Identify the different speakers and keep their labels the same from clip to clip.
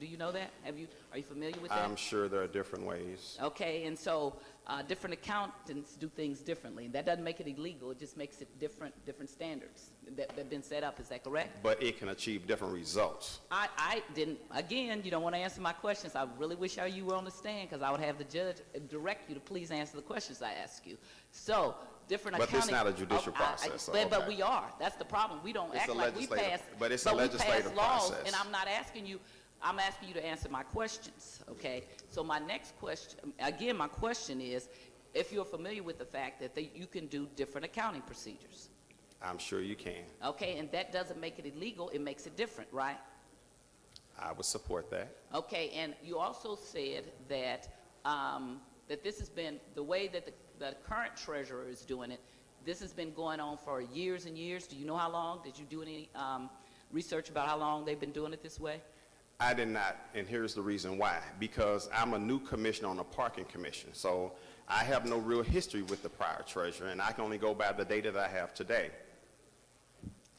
Speaker 1: Do you know that? Have you, are you familiar with
Speaker 2: I'm
Speaker 1: that?
Speaker 2: sure there are different ways.
Speaker 1: Okay, and so, uh, different accountants do things differently. That doesn't make it illegal, it just makes it different, different standards that, that have been set up, is that correct?
Speaker 2: But it can achieve different results.
Speaker 1: I, I didn't, again, you don't want to answer my questions. I really wish I you were on the stand because I would have the judge uh, direct you to please answer the questions I ask you. So, different
Speaker 2: But
Speaker 1: accounting.
Speaker 2: this not a judicial
Speaker 1: Oh, I- I-
Speaker 2: process, so,
Speaker 1: But, but
Speaker 2: okay.
Speaker 1: we are. That's the problem. We don't
Speaker 2: It's
Speaker 1: act
Speaker 2: a
Speaker 1: like we
Speaker 2: legislative-
Speaker 1: pass.
Speaker 2: but it's a
Speaker 1: we pass
Speaker 2: legislative
Speaker 1: laws,
Speaker 2: process.
Speaker 1: And I'm not asking you, I'm asking you to answer my questions, okay? So my next question, again, my question is, if you're familiar with the fact that they- you can do different accounting procedures,
Speaker 2: I'm sure you can.
Speaker 1: okay? And that doesn't make it illegal, it makes it different, right?
Speaker 2: I would support that.
Speaker 1: Okay, and you also said that, um, that this has been, the way that the, the current treasurer is doing it, this has been going on for years and years. Do you know how long? Did you do any, um, research about how long they've been doing it this way?
Speaker 2: I did not, and here's the reason why. Because I'm a new commissioner on the parking commission, so I have no real history with the prior treasurer, and I can only go by the data that I have today.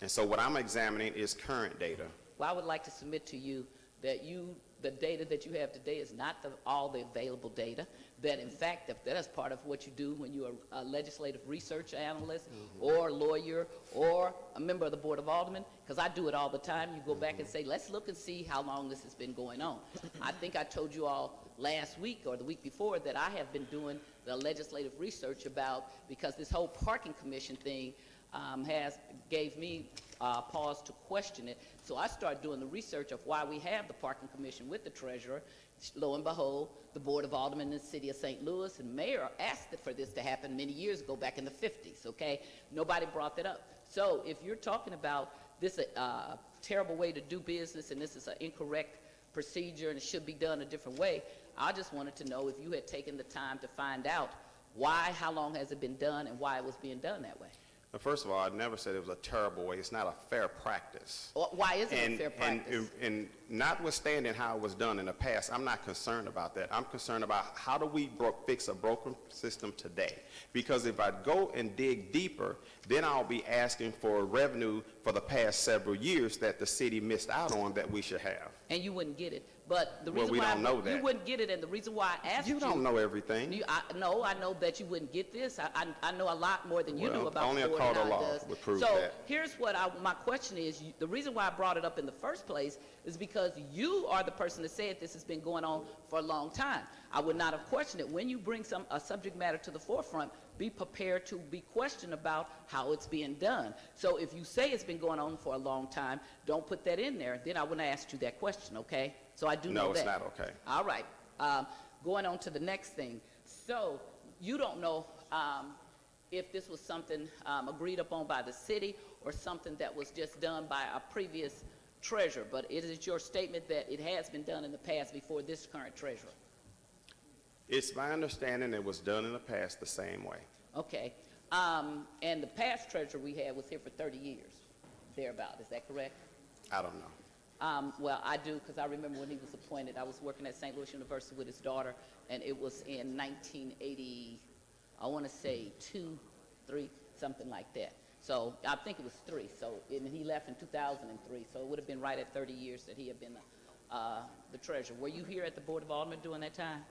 Speaker 2: And so what I'm examining is current data.
Speaker 1: Well, I would like to submit to you that you, the data that you have today is not the, all the available data, that in fact, that that is part of what you do when you're a legislative research analyst, or lawyer, or a member of the Board of Aldermen, because I do it all the time, you go back and say, let's look and see how long this has been going on. I think I told you all last week or the week before that I have been doing the legislative research about, because this whole parking commission thing, um, has, gave me uh, pause to question it. So I started doing the research of why we have the parking commission with the treasurer. Lo and behold, the Board of Aldermen in the city of St. Louis and mayor asked for this to happen many years ago, back in the 50s, okay? Nobody brought that up. So if you're talking about this uh, terrible way to do business and this is an incorrect procedure and it should be done a different way. I just wanted to know if you had taken the time to find out why, how long has it been done, and why it was being done that way.
Speaker 2: Now, first of all, I never said it was a terrible way. It's not a fair practice.
Speaker 1: Or why is it a
Speaker 2: And,
Speaker 1: fair
Speaker 2: and,
Speaker 1: practice?
Speaker 2: and notwithstanding how it was done in the past, I'm not concerned about that. I'm concerned about how do we bro- fix a broken system today? Because if I go and dig deeper, then I'll be asking for revenue for the past several years that the city missed out on that we should have.
Speaker 1: And you wouldn't get it. But the
Speaker 2: Well,
Speaker 1: reason
Speaker 2: we
Speaker 1: why,
Speaker 2: don't know
Speaker 1: you
Speaker 2: that.
Speaker 1: wouldn't get it, and the reason why I asked you.
Speaker 2: You don't know everything.
Speaker 1: you- I, no, I know that you wouldn't get this. I, I, I know a lot more than you do
Speaker 2: Well,
Speaker 1: about
Speaker 2: only
Speaker 1: the
Speaker 2: a
Speaker 1: board
Speaker 2: court of
Speaker 1: and how it
Speaker 2: law
Speaker 1: does.
Speaker 2: would prove
Speaker 1: so
Speaker 2: that.
Speaker 1: here's what I, my question is: you, the reason why I brought it up in the first place is because you are the person that said this has been going on for a long time. I would not have questioned it. When you bring some a subject matter to the forefront, be prepared to be questioned about how it's being done. So if you say it's been going on for a long time, don't put that in there. Then I wouldn't have asked you that question. Okay? So I do know
Speaker 2: No, it's
Speaker 1: that.
Speaker 2: not okay.
Speaker 1: All right, um, going on to the next thing. So, you don't know, um, if this was something, um, agreed upon by the city or something that was just done by a previous treasurer, but it is your statement that it has been done in the past before this current treasurer.
Speaker 2: It's my understanding it was done in the past the same way.
Speaker 1: Okay, um, and the past treasurer we had was here for thirty years, thereabout, is that correct?
Speaker 2: I don't know.
Speaker 1: Um, well, I do, because I remember when he was appointed, I was working at St. Louis University with his daughter, and it was in 1980, I want to say two, three, something like that. So I think it was three. So and he left in 2003. So it would have been right at 30 years that he had been uh, the treasurer. Were you here at the Board of Aldermen during that time?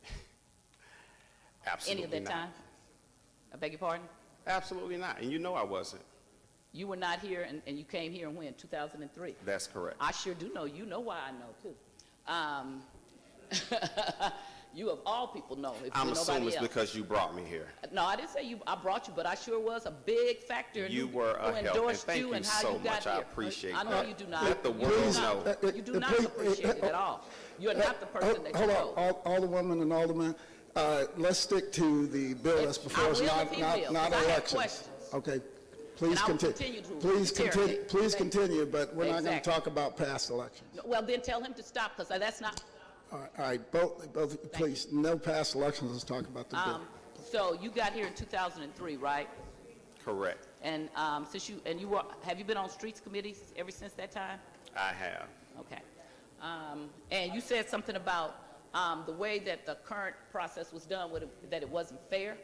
Speaker 1: Any
Speaker 2: Absolutely
Speaker 1: of
Speaker 2: not.
Speaker 1: that time? I beg your pardon?
Speaker 2: Absolutely not. And you know I wasn't.
Speaker 1: You were not here, and, and you came here in when? 2003.
Speaker 2: That's correct.
Speaker 1: I sure do know. You know why I know too. Um, you of all people know. If
Speaker 2: I'm
Speaker 1: you're
Speaker 2: assuming
Speaker 1: nobody
Speaker 2: it's
Speaker 1: else.
Speaker 2: because you brought me here.
Speaker 1: No, I didn't say you. I brought you, but I sure was a big factor. in
Speaker 2: You
Speaker 1: who-
Speaker 2: were a
Speaker 1: who
Speaker 2: help, and
Speaker 1: endorsed
Speaker 2: thank you
Speaker 1: and how
Speaker 2: so
Speaker 1: you got
Speaker 2: much. I
Speaker 1: here.
Speaker 2: appreciate
Speaker 1: I know
Speaker 2: that.
Speaker 1: you do not.
Speaker 2: Let the
Speaker 1: You do
Speaker 2: world
Speaker 1: not-
Speaker 2: know.
Speaker 1: You do not
Speaker 3: Please, uh,
Speaker 1: appreciate it at all. You are not the person that you
Speaker 3: Hold on,
Speaker 1: know.
Speaker 3: Al- Alderwoman and Alderman, uh, let's stick to the bill that's
Speaker 1: I
Speaker 3: before us,
Speaker 1: will if
Speaker 3: not,
Speaker 1: he
Speaker 3: not,
Speaker 1: will,
Speaker 3: not
Speaker 1: 'cause I have
Speaker 3: elections.
Speaker 1: questions.
Speaker 3: Okay,
Speaker 1: I
Speaker 3: please
Speaker 1: will
Speaker 3: continue.
Speaker 1: continue to
Speaker 3: Please continue,
Speaker 1: interrogate.
Speaker 3: please
Speaker 1: Thank you.
Speaker 3: continue, but we're not going to
Speaker 1: Exactly.
Speaker 3: talk about past elections.
Speaker 1: Well, then tell him to stop, because that's not.
Speaker 3: All right, all right, both, both, please, no past elections, let's talk about the bill.
Speaker 1: Um, so you got here in 2003, right?
Speaker 2: Correct.
Speaker 1: And um, since you and you were, have you been on streets committees ever since that time?
Speaker 2: I have.
Speaker 1: Okay. Um, And you said something about um, the way that the current process was done, with it- that it wasn't fair.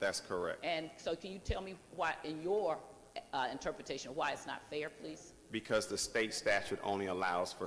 Speaker 2: That's correct.
Speaker 1: And so can you tell me why, in your uh, interpretation, why it's not fair, please?
Speaker 2: Because the state statute only allows for